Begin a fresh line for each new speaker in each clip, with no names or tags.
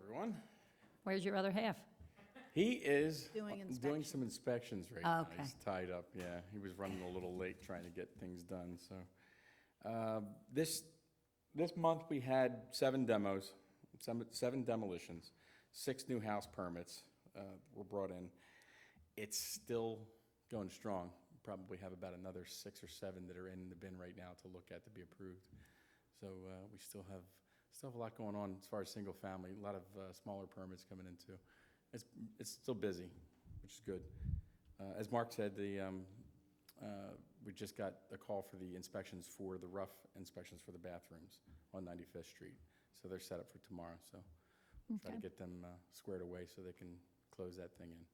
everyone.
Where's your other half?
He is
Doing
uh, doing some inspections right now.
Okay.
He's tied up, yeah. He was running a little late trying to get things done, so. Uh, This, this month, we had seven demos, seven- seven demolitions, six new house permits uh, were brought in. It's still going strong. Probably have about another six or seven that are in the bin right now to look at to be approved. So uh, we still have, still have a lot going on as far as single family, a lot of uh, smaller permits coming in too. It's, it's still busy, which is good. Uh, As Mark said, the, um, uh, we just got a call for the inspections for the rough inspections for the bathrooms on 95th Street. So they're set up for tomorrow, so we'll try to
Okay.
get them uh, squared away so they can close that thing in.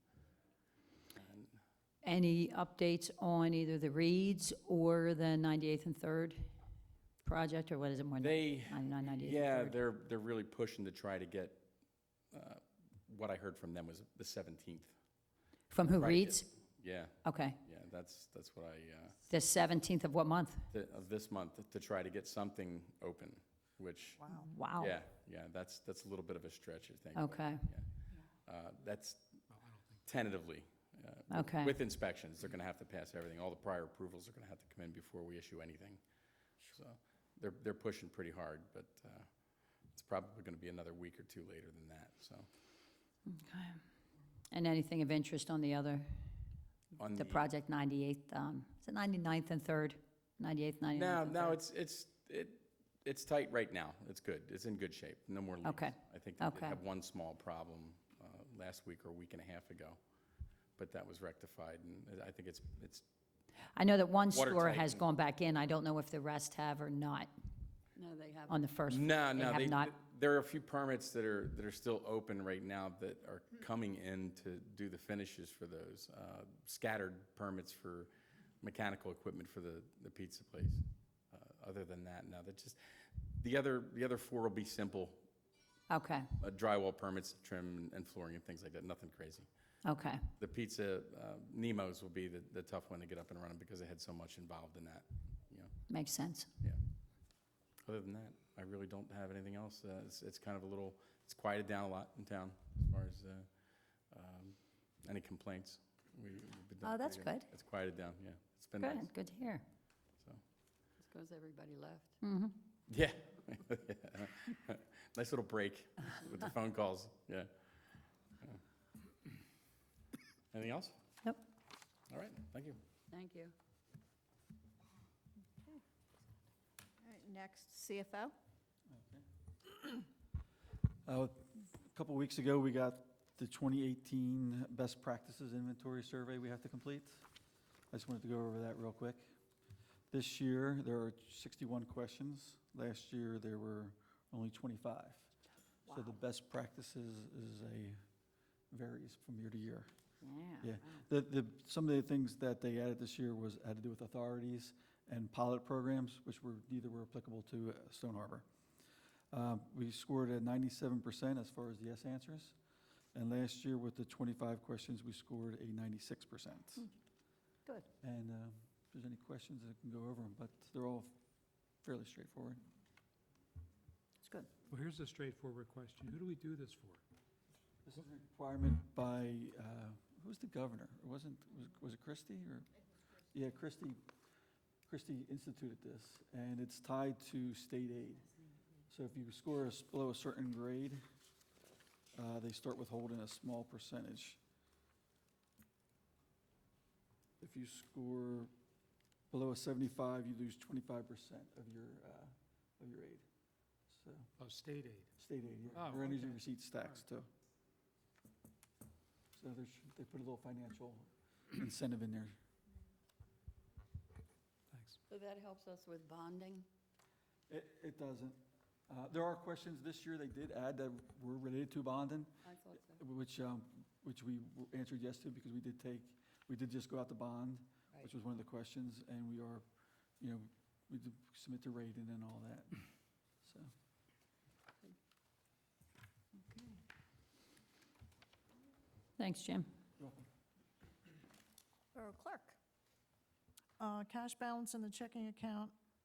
And
Any updates on either the Reeds or the 98th and 3rd project, or what is it, more than
They,
99, 98th and
yeah,
3rd?
they're, they're really pushing to try to get, uh, what I heard from them was the 17th.
From who,
Right,
Reeds?
Yeah,
Okay,
yeah, that's, that's what I, uh,
the 17th of what month?
th- of this month to try to get something open, which,
Wow.
Wow. Oh.
yeah, yeah, that's, that's a little bit of a stretch, I think. but,
Okay,
uh, That's tentatively. uh, with-
Okay.
With inspections, they're going to have to pass everything. All the prior approvals are going to have to come in before we issue anything. So they're, they're pushing pretty hard, but uh, it's probably going to be another week or two later than that, so.
and anything of interest on the other,
on
the project 98th, um, is it 99th and 3rd? 98th, 99th?
No,
and
no,
3rd?
it's, it's, it, it's tight right now. It's good. It's in good shape. No more leaks.
Okay.
I think they did
Okay.
have one small problem uh, last week or a week and a half ago, but that was rectified, and I think it's, it's,
I know that one store
watertight
has
and-
gone back in, I don't know if the rest have or not
No, they haven't.
on the first.
no,
they
no.
have
they-
not-
There are a few permits that are, that are still open right now that are coming in to do the finishes for those. uh, Scattered permits for mechanical equipment for the, the pizza place. Uh, Other than that, no, they just, the other, the other four will be simple
Okay,
uh, drywall permits, trim and- and flooring and things like that, nothing crazy.
okay,
The pizza, uh, Nemo's will be the, the tough one to get up and running because they had so much involved in that, you know,
makes sense.
yeah. Other than that, I really don't have anything else. Uh, It's, it's kind of a little, it's quieted down a lot in town as far as uh, um, any complaints. We- we've been doing
Oh, that's
pretty
good.
It's quieted down, yeah. It's been nice,
Good, good to hear.
so.
Because everybody left.
Mm-hmm.
Yeah. Nice little break with the phone calls, yeah. Anything else?
Nope.
All right, thank you.
Thank you.
All right, next, CFO.
Uh, A couple weeks ago, we got the 2018 Best Practices Inventory Survey we have to complete. I just wanted to go over that real quick. This year, there are 61 questions. Last year, there were only 25. So the best practices is a, varies from year to year. Yeah. The, the, some of the things that they added this year was, had to do with authorities and pilot programs, which were, neither were applicable to uh, Stone Harbor. Uh, We scored at ninety-seven percent as far as yes answers, and last year with the twenty-five questions, we scored a ninety-six percent.
Good.
And uh, if there's any questions, I can go over them, but they're all fairly straightforward.
It's good.
Well, here's a straightforward question. Who do we do this for?
This is a requirement by, uh, who was the governor? It wasn't, was- was it Christie or? Yeah, Christie, Christie instituted this, and it's tied to state aid. So if you score a s- below a certain grade, uh, they start withholding a small percentage. If you score below a 75, you lose 25% of your, uh, of your aid. So,
Oh, state aid.
state aid, yeah,
Oh,
or energy
okay.
receipts tax too. So there's, they put a little financial incentive in there.
Thanks.
So that helps us with bonding?
It, it doesn't. Uh, There are questions this year they did add that were related to bonding,
I thought so.
which, um, which we w- answered yes to because we did take, we did just go out to bond, which was one of the questions, and we are, you know, we did submit the rate and then all that, so.
Thanks, Jim.
Borough Clerk.
Uh, Cash balance in the checking account